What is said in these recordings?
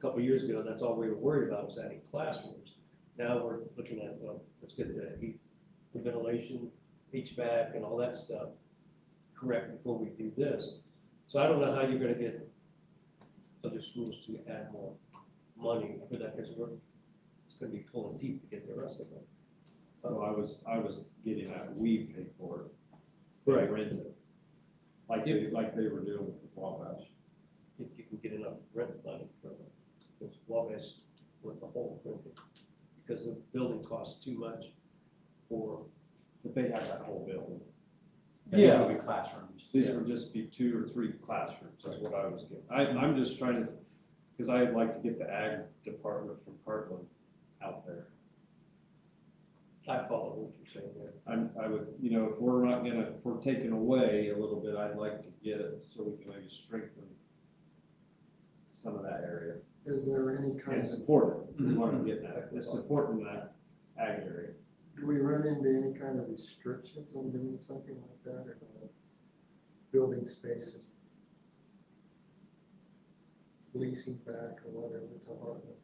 couple years ago, that's all we were worried about was adding classrooms. Now we're looking at, well, let's get the heat, the ventilation, HVAC and all that stuff correct before we do this. So I don't know how you're gonna get other schools to add more money for that, because we're, it's gonna be pulling teeth to get the rest of it. Oh, I was, I was getting that, we pay for it. they Right. Rent it. Like they, like they were doing with the Wabash. If you can get enough rent money for it, because Wabash with the whole, building, because the building costs too much for, But they have that whole building. And these Yeah. will be classrooms. These would just be two or three classrooms, is what I was getting. I, I'm just trying to, because I'd like to get the ag department from Heartland out there. I follow what you're saying there. I'm, I would, you know, if we're not gonna, if we're taking away a little bit, I'd like to get it so we can maybe strengthen some of that area Is there any kind and of, support it, is what I'm getting at, is supporting that ag area. do we run into any kind of restrictions on doing something like that or no? building spaces? Leasing back or whatever to Heartland?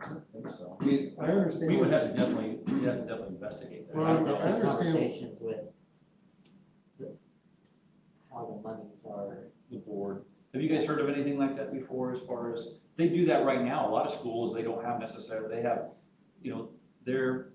I don't think so. I mean, I understand. We would have to definitely, we'd have to definitely investigate that. Well, I've I had understand. conversations with the- how the monies are, the board. Have you guys heard of anything like that before as far as, they do that right now, a lot of schools, they don't have necessarily, they have, you know, their,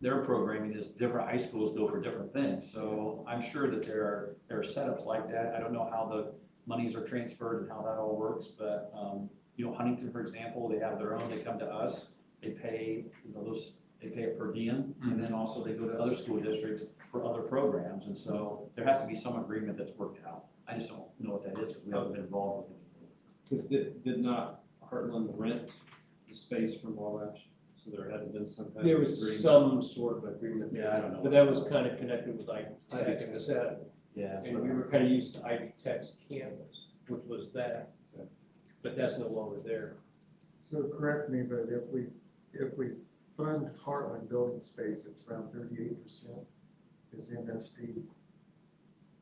their programming is different, high schools go for different things, so I'm sure that there are, there are setups like that, I don't know how the monies are transferred and how that all works, but, um, you know, Huntington, for example, they have their own, they come to us, they pay, you know, those, they pay it per diem, and then also they go to other school districts for other programs, and so there has to be some agreement that's worked out. I just don't know what that is, because we haven't been involved with it. Because did, did not Heartland rent the space from Wabash? So there had to been some kind of. There was agreement. some sort of agreement there, Yeah, I don't know. but that was kind of connected with Ivy Ivy Tech and Tech. that, Yeah. and we were kind of used to Ivy Tech's campus, which was that. But that's no longer there. So correct me, but if we, if we fund Heartland building space, it's around thirty-eight percent is MSD.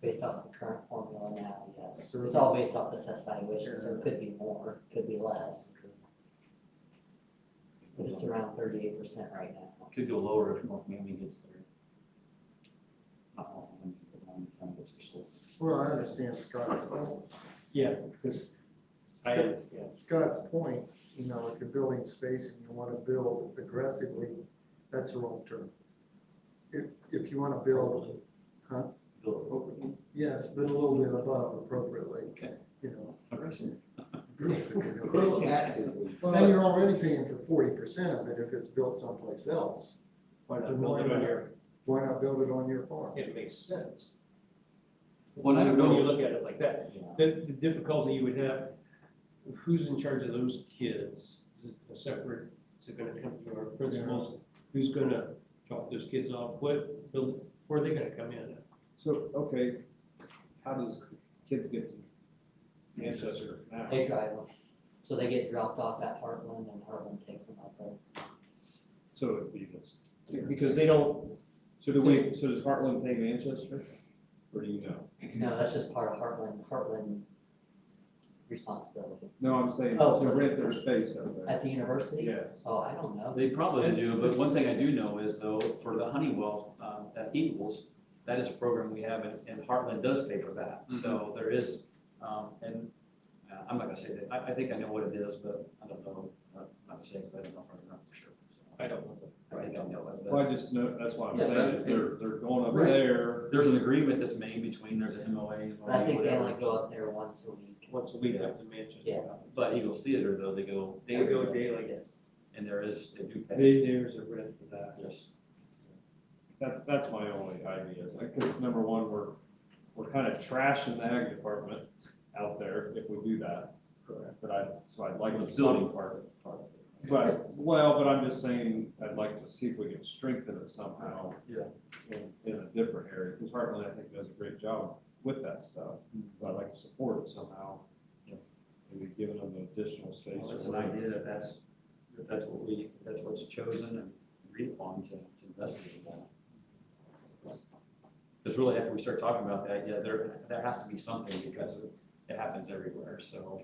based off the current formula now, yes. Sure. It's all based off assessed valuation, so it could be more, could be less. But it's around thirty-eight percent right now. Could go lower if North Miami gets there. Not North Miami, but Miami County gets their school. Well, I understand Scott's point. Yeah, because I, yeah. Scott's point, you know, if you're building space and you wanna build aggressively, that's the wrong term. If, if you wanna build, huh? Build appropriately. yes, but a little bit above appropriately, Okay. you know. Aggressive. aggressively. Actively. Then you're already paying for forty percent of it if it's built someplace else. Why Then not why build it on not? your, Why not build it on your farm? it makes sense. Well, I When don't you know. look at it like that, Yeah. the, the difficulty you would have, who's in charge of those kids? Is it a separate, is it gonna come through our principals? Who's gonna drop those kids off? What, build- where are they gonna come in at? So, okay, how does kids get to Manchester now? They drive them, so they get dropped off at Heartland and Heartland takes them up there. So it'd be this. Because they don't, So do we, so does Heartland pay Manchester? Or do you know? No, that's just part of Heartland, Heartland responsibility. No, I'm saying Oh, to for the- rent their space out there. At the university? Yes. Oh, I don't know. They probably do, but one thing I do know is though, for the Honeywell, um, at Eagles, that is a program we have and, and Heartland does pay for that. Mm-hmm. So there is, um, and uh, I'm not gonna say that, I, I think I know what it is, but I don't know, uh, I'm not gonna say it, but I don't know if I know for sure. So I don't know. I think I know it, but Well, I just know, that's why I'm Yes, saying I- is they're, they're going up Right. there. there's an agreement that's made between, there's an MOA. an But I think they whatever. only go up there once a week. once a week up to Manchester. Yeah. But Eagles Theater though, they go They go daily daily. Yes. and there is, they do pay. They, there's a rent for that. Yes. That's, that's my only idea, is like, 'cause number one, we're, we're kind of trashing the ag department out there if we do that. Correct. But I, so I'd like The to. building part. But, well, but I'm just saying, I'd like to see if we can strengthen it somehow. Yeah. In, in a different area, because Heartland, I think, does a great job with that stuff, Mm-hmm. but I'd like to support it somehow. Yeah. Maybe giving them additional space. Well, or it's an whatever. idea that that's, if that's what we, if that's what's chosen and agreed upon to, to investigate that. Because really, after we start talking about that, yeah, there, there has to be something because it happens everywhere, so.